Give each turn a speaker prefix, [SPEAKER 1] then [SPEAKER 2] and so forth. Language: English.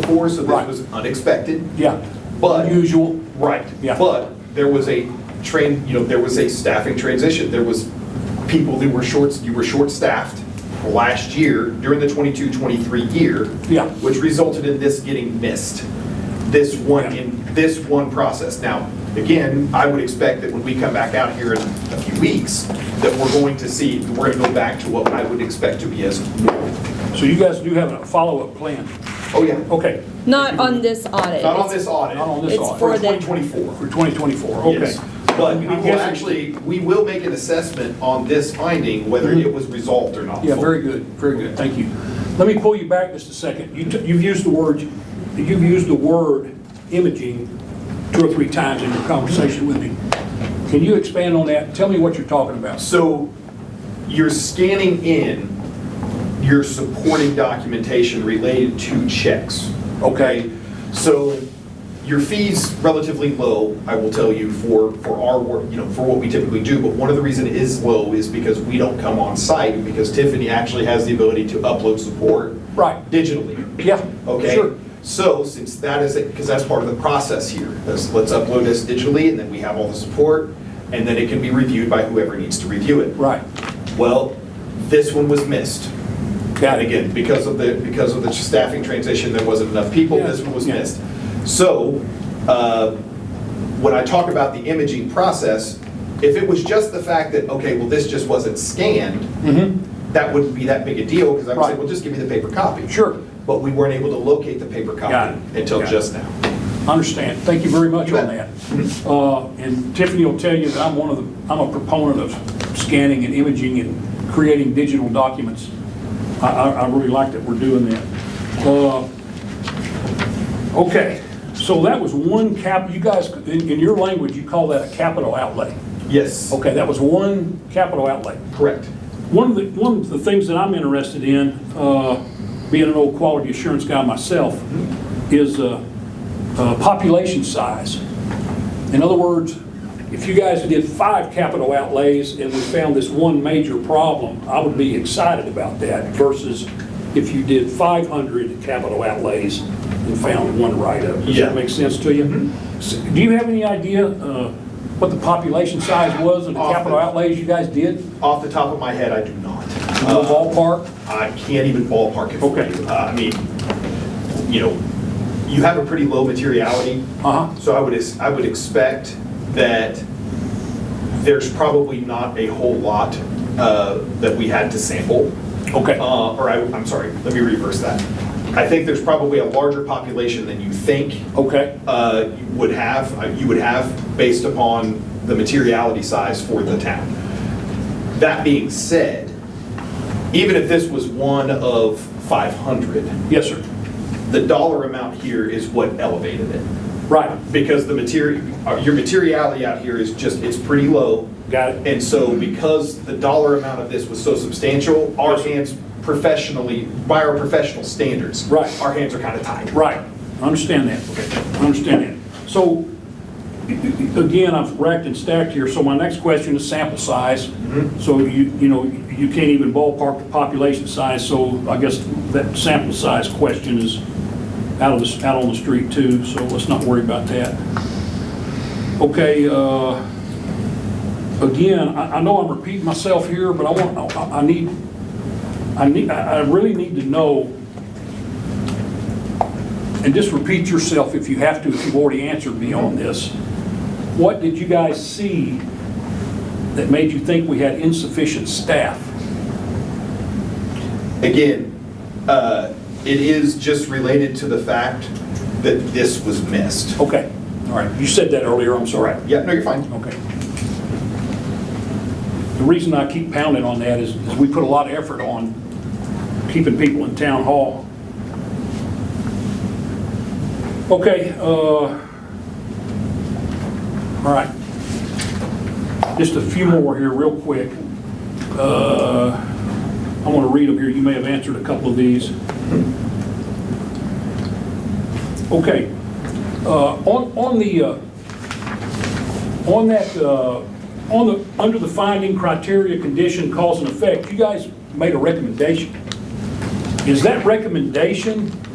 [SPEAKER 1] before, so this
[SPEAKER 2] Right.
[SPEAKER 1] was unexpected.
[SPEAKER 2] Yeah.
[SPEAKER 1] But-
[SPEAKER 2] Unusual.
[SPEAKER 1] Right.
[SPEAKER 2] Yeah.
[SPEAKER 1] But there was a train, you know, there was a staffing transition. There was people who were short, you were short-staffed last year during the 22-23 year.
[SPEAKER 2] Yeah.
[SPEAKER 1] Which resulted in this getting missed, this one,
[SPEAKER 2] Yeah.
[SPEAKER 1] in this one process. Now, again, I would expect that when we come back out here in a few weeks, that we're going to see, we're going to go back to what I would expect to be as normal.
[SPEAKER 2] So you guys do have a follow-up plan?
[SPEAKER 1] Oh, yeah.
[SPEAKER 2] Okay,
[SPEAKER 3] Not on this audit.
[SPEAKER 1] Not on this audit.
[SPEAKER 2] Not on this
[SPEAKER 3] It's
[SPEAKER 2] audit.
[SPEAKER 3] for
[SPEAKER 1] For
[SPEAKER 3] the.
[SPEAKER 1] 2024.
[SPEAKER 2] for 2024, okay.
[SPEAKER 1] Yes, But we
[SPEAKER 2] I'm
[SPEAKER 1] will
[SPEAKER 2] guessing-
[SPEAKER 1] actually, we will make an assessment on this finding, whether it was resolved or not.
[SPEAKER 2] Mm-hmm. Yeah, very good, very good, thank you. Let me pull you back just a second. You t- You've used the word, you've used the word imaging two or three times in your conversation with me. Can you expand on that? Tell me what you're talking about.
[SPEAKER 1] So you're scanning in your supporting documentation related to checks.
[SPEAKER 2] Okay.
[SPEAKER 1] So your fee's relatively low, I will tell you, for, for our work, you know, for what we typically do. But one of the reason it is low is because we don't come on site, because Tiffany actually has the ability to upload support.
[SPEAKER 2] Right.
[SPEAKER 1] Digitally.
[SPEAKER 2] Yeah,
[SPEAKER 1] Okay,
[SPEAKER 2] sure.
[SPEAKER 1] so since that is, because that's part of the process here, let's, let's upload this digitally, and then we have all the support, and then it can be reviewed by whoever needs to review it.
[SPEAKER 2] Right.
[SPEAKER 1] Well, this one was missed.
[SPEAKER 2] Got
[SPEAKER 1] And
[SPEAKER 2] it.
[SPEAKER 1] again, because of the, because of the staffing transition, there wasn't enough people, this one was
[SPEAKER 2] Yeah.
[SPEAKER 1] missed. So, uh, when I talk about the imaging process, if it was just the fact that, okay, well, this just wasn't scanned,
[SPEAKER 2] Mm-hmm.
[SPEAKER 1] that wouldn't be that big a deal, because I would say,
[SPEAKER 2] Right.
[SPEAKER 1] well, just give me the paper copy.
[SPEAKER 2] Sure.
[SPEAKER 1] But we weren't able to locate the paper
[SPEAKER 2] Got it.
[SPEAKER 1] copy until
[SPEAKER 2] Got it.
[SPEAKER 1] just now.
[SPEAKER 2] Understand, thank you very much
[SPEAKER 1] You
[SPEAKER 2] on
[SPEAKER 1] bet.
[SPEAKER 2] that. Uh, And Tiffany will tell you that I'm one of the, I'm a proponent of scanning and imaging and creating digital documents. I, I I really like that we're doing that. Uh, Okay, so that was one cap, you guys, in, in your language, you call that a capital outlay.
[SPEAKER 1] Yes,
[SPEAKER 2] Okay, that was one capital outlay.
[SPEAKER 1] correct.
[SPEAKER 2] One of the, one of the things that I'm interested in, uh, being an old quality assurance guy myself, is uh, uh, population size. In other words, if you guys did five capital outlays and we found this one major problem, I would be excited about that versus if you did 500 capital outlays and found one write-up. Does
[SPEAKER 1] Yeah. Mm-hmm.
[SPEAKER 2] that make sense to you? S- Do you have any idea uh, what the population size was of the
[SPEAKER 1] Off the-
[SPEAKER 2] capital outlays you guys did?
[SPEAKER 1] Off the top of my head, I do not.
[SPEAKER 2] No
[SPEAKER 1] Uh,
[SPEAKER 2] ballpark?
[SPEAKER 1] I can't even ballpark it for
[SPEAKER 2] Mm-hmm. Okay.
[SPEAKER 1] you. Uh, I mean, you know, you have a pretty low materiality.
[SPEAKER 2] Uh-huh.
[SPEAKER 1] So I would, ex- I would expect that there's probably not a whole lot uh, that we had to sample.
[SPEAKER 2] Okay.
[SPEAKER 1] Uh, Or I, I'm sorry, let me reverse that. I think there's probably a larger population than you think
[SPEAKER 2] Okay.
[SPEAKER 1] uh, you would have, uh, you would have based upon the materiality size for the town. That being said, even if this was one of 500,
[SPEAKER 2] Yes, sir.
[SPEAKER 1] the dollar amount here is what elevated it.
[SPEAKER 2] Right.
[SPEAKER 1] Because the material, your materiality out here is just, it's pretty low.
[SPEAKER 2] Got it.
[SPEAKER 1] And so because the dollar amount of this was so substantial, our
[SPEAKER 2] Yes, sir.
[SPEAKER 1] hands professionally, by our professional standards.
[SPEAKER 2] Right.
[SPEAKER 1] Our hands are kind of tied.
[SPEAKER 2] Right. I understand that. I understand that. So, again, I've racked and stacked here, so my next question is sample size. So you, you know, you can't even ballpark the population size, so I guess that sample size question is out of the, out on the street too, so let's not worry about that. Okay, uh, again, I, I know I'm repeating myself here, but I want, I, I need, I need, I I really need to know and just repeat yourself if you have to, if you've already answered me on this. What did you guys see that made you think we had insufficient staff?
[SPEAKER 1] Again, uh, it is just related to the fact that this was missed.
[SPEAKER 2] Okay, all right, you said that earlier, I'm sorry.
[SPEAKER 1] Yeah, no, you're fine.
[SPEAKER 2] Okay. The reason I keep pounding on that is, is we put a lot of effort on keeping people in town hall. Okay, uh, all right. Just a few more here real quick. Uh, I want to read them here. You may have answered a couple of these. Okay. Uh, on, on the, uh, on that, uh, on the, under the finding criteria, condition, cause and effect, you guys made a recommendation. Is that recommendation